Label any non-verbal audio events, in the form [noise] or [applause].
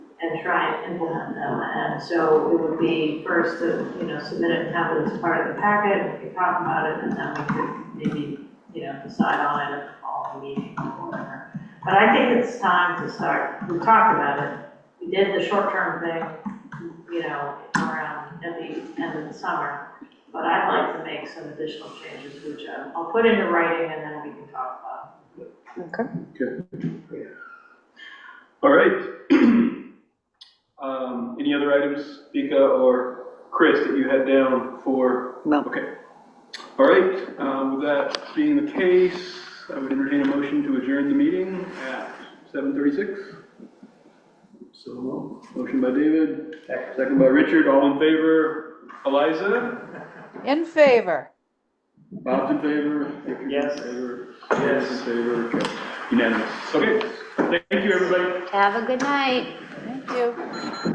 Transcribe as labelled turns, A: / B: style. A: and try and implement them. And so it would be first to, you know, submit it and have it as part of the packet, we could talk about it, and then we could maybe, you know, decide on it at the following meeting or whatever. But I think it's time to start, we talked about it, we did the short-term thing, you know, around at the end of the summer. But I'd like to make some additional changes, which um, I'll I'll put into writing and then we can talk about.
B: Okay.
C: All right. [clears throat] Um, any other items, Vika or Chris, that you had down for?
B: No.
C: Okay. All right, um, with that being the case, I would entertain a motion to adjourn the meeting at seven thirty-six. So, moved. motion by David, second by Richard, all in favor. Eliza,
B: In favor.
C: Bob's in favor. Richard's
D: Yes.
C: in favor. Yes. In favor, Okay. unanimous. Okay, thank you, everybody.
E: Have a good night.
B: Thank you.